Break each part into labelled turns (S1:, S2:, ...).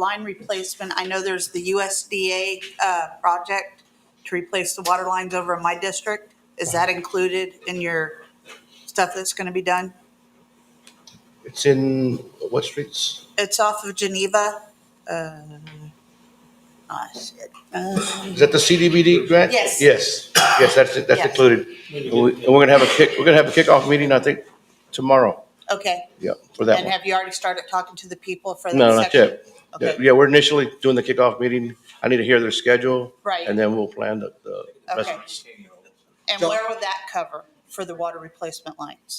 S1: line replacement, I know there's the USDA uh, project to replace the water lines over in my district. Is that included in your stuff that's going to be done?
S2: It's in what streets?
S1: It's off of Geneva. uh, oh, shit. Uh,
S2: Is that the CDBD grant?
S1: Yes.
S2: Yes, yes, that's, it. that's
S1: Yes.
S2: included. And we- and we're gonna have a kick, we're gonna have a kickoff meeting, I think, tomorrow,
S1: Okay,
S2: yeah, for that
S1: and
S2: one.
S1: have you already started talking to the people for
S2: No,
S1: the
S2: not
S1: section?
S2: yet. Yeah,
S1: Okay,
S2: Yeah, we're initially doing the kickoff meeting. I need to hear their schedule.
S1: Right.
S2: And then we'll plan the, the rest.
S1: okay. And where would that cover for the water replacement lines?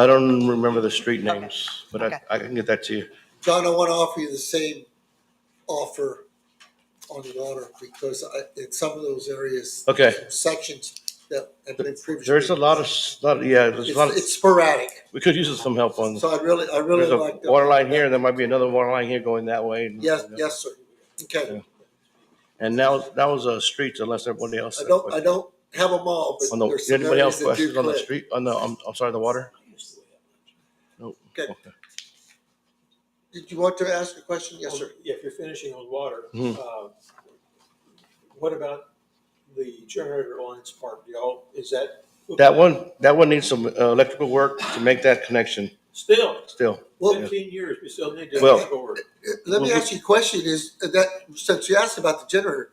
S2: I don't remember the street
S1: Okay.
S2: names, but I,
S1: Okay.
S2: I can get that to you.
S3: John, I want to offer you the same offer on the water because I, in some of those areas.
S2: Okay.
S3: Sections that have been previously.
S2: There's a lot of, s- lot, of- yeah, there's a lot,
S3: It's,
S2: of-
S3: it's sporadic,
S2: we could use some help on,
S3: so I really, I really
S2: there's a
S3: like. that.
S2: water line here, and there might be another water line here going that way. and-
S3: Yes, yes, sir. Okay,
S2: And now, that was a street, unless everybody else.
S3: I don't, I don't have them all,
S2: On
S3: but
S2: the,
S3: there's some
S2: anybody
S3: areas
S2: else
S3: that do
S2: questions on the
S3: clip.
S2: street, on the, I'm, I'm sorry, the water? Nope.
S3: Okay. Did you want to ask a question? Yes, sir. Mm-hmm.
S4: Yeah, If you're finishing on water,
S2: Mhm.
S4: uh, what about the generator lines part, y'all? Is that?
S2: That one, that one needs some uh, electrical work to make that connection
S4: Still,
S2: still.
S3: Well,
S4: fifteen years, we still need to
S2: Well-
S4: move forward.
S3: let me ask you a question is that, since you asked about the generator,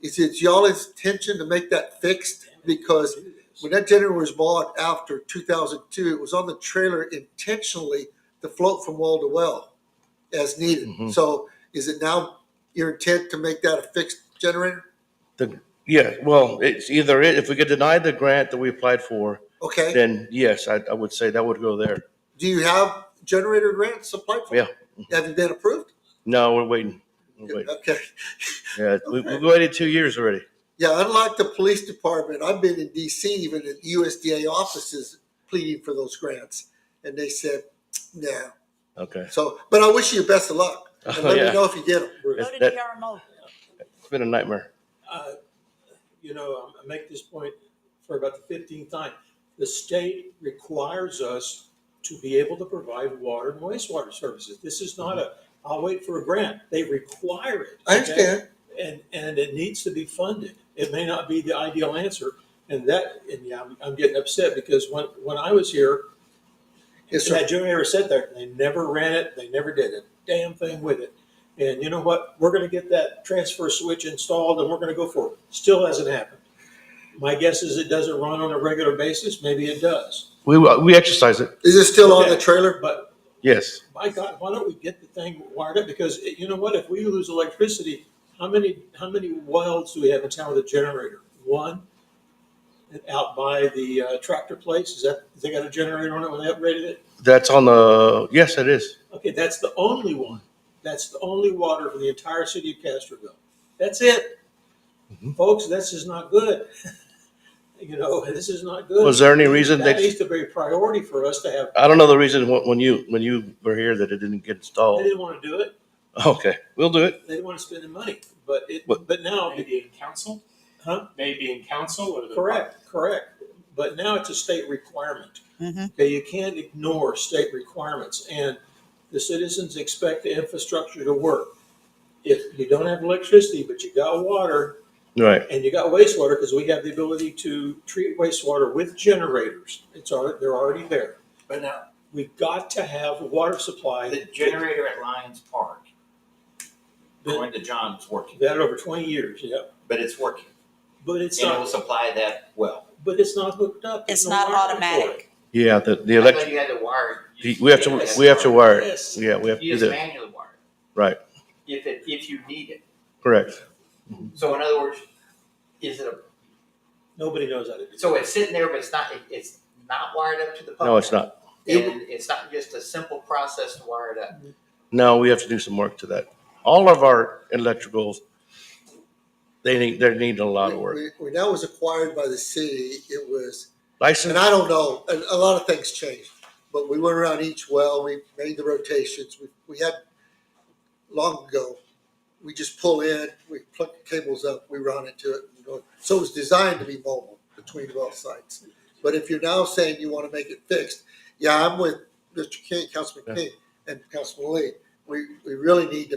S3: is it y'all's intention to make that fixed? Because When that generator was bought after 2002, it was on the trailer intentionally to float from well to well as needed.
S2: Mhm.
S3: So is it now your intent to make that a fixed generator?
S2: The, yeah, well, it's either, it- if we could deny the grant that we applied for,
S3: Okay.
S2: then yes, I, I would say that would go there.
S3: Do you have generator grants applied for?
S2: Yeah.
S3: Have you been approved?
S2: No, we're waiting. We're waiting.
S3: Okay.
S2: Yeah, we, we waited two years already.
S3: Yeah, unlike the police department, I've been in DC, even in USDA offices pleading for those grants. And they said, no.
S2: Okay.
S3: So, but I wish you best of luck. And
S2: Oh,
S3: let
S2: yeah.
S3: me know if you get them.
S1: Go
S2: It's-
S1: to
S2: that-
S1: DRMO.
S2: It's been a nightmare.
S4: Uh, You know, I'm- I make this point for about the fifteenth time. The state requires us to be able to provide water and wastewater services. This is not a, I'll wait for a grant. They require it.
S3: Mm-hmm. I
S4: okay?
S3: understand.
S4: and and it needs to be funded. It may not be the ideal answer, and that and yeah, I'm, I'm getting upset because when when I was here,
S3: Yes, sir.
S4: that generator sat there. They never ran it. They never did a damn thing with it. And you know what? We're going to get that transfer switch installed, and we're going to go for it. Still hasn't happened. My guess is it doesn't run on a regular basis. Maybe it does.
S2: We, we exercise it,
S3: Is it still on the
S4: Okay.
S3: trailer?
S4: But
S2: yes.
S4: my God, why don't we get the thing wired up? Because it- you know what? If we lose electricity, how many how many welds do we have in town with a generator? One. And Out by the uh, tractor place, is that they got a generator on it when they upgraded it?
S2: That's on the, yes, it is.
S4: Okay, that's the only one. That's the only water for the entire city of Castroville. That's it, folks. This is not good. you know, this is not good.
S2: Was there any reason
S4: that
S2: they,
S4: needs to be a priority for us to have.
S2: I don't know the reason when when you, when you were here that it didn't get
S4: They
S2: installed.
S4: didn't want to do it.
S2: Okay, we'll do it.
S4: They didn't want to spend the money. But it.
S2: What-
S4: But now.
S5: Maybe in council?
S4: Huh?
S5: Maybe in council or the.
S4: Correct, correct. But now it's a state requirement.
S1: Mhm.
S4: Okay, you can't ignore state requirements and the citizens expect the infrastructure to work. If you don't have electricity, but you got water
S2: Right,
S4: and you got wastewater, because we have the ability to treat wastewater with generators. It's already, they're already there.
S6: But now,
S4: We've got to have a water supply.
S6: the generator at Lions Park, according to John, is working,
S4: That over twenty years, yeah.
S6: but it's working.
S4: But it's
S6: And it will
S4: not,
S6: supply that well.
S4: but it's not hooked up. There's
S1: It's
S4: no
S1: not
S4: wiring for
S1: automatic.
S2: yeah, the, the
S6: I
S2: electric,
S6: thought you had to wire.
S2: the- we have to, we have to wire
S4: it.
S2: it.
S4: Yes.
S2: Yeah, we have to
S6: You
S2: do
S6: just
S2: that,
S6: manually wire it,
S2: right,
S6: if it, if you need it.
S2: correct.
S6: So in other words, is it a,
S4: Nobody knows how to do it.
S6: so it's sitting there, but it's not, it- it's not wired up to the public?
S2: No, it's not.
S6: And it's not just a simple process to wire it up?
S2: No, we have to do some work to that. All of our electricals, they need, they need a lot of work.
S3: When- When that was acquired by the city, it was, and
S2: License,
S3: I don't know, and a lot of things changed. But we went around each well, we made the rotations, we, we had, long ago, we just pull in, we plug the cables up, we run into it. and go. So it was designed to be mobile between well sites. But if you're now saying you want to make it fixed, yeah, I'm with Mr. King, Councilman King, and Councilman Lee. We, we really need to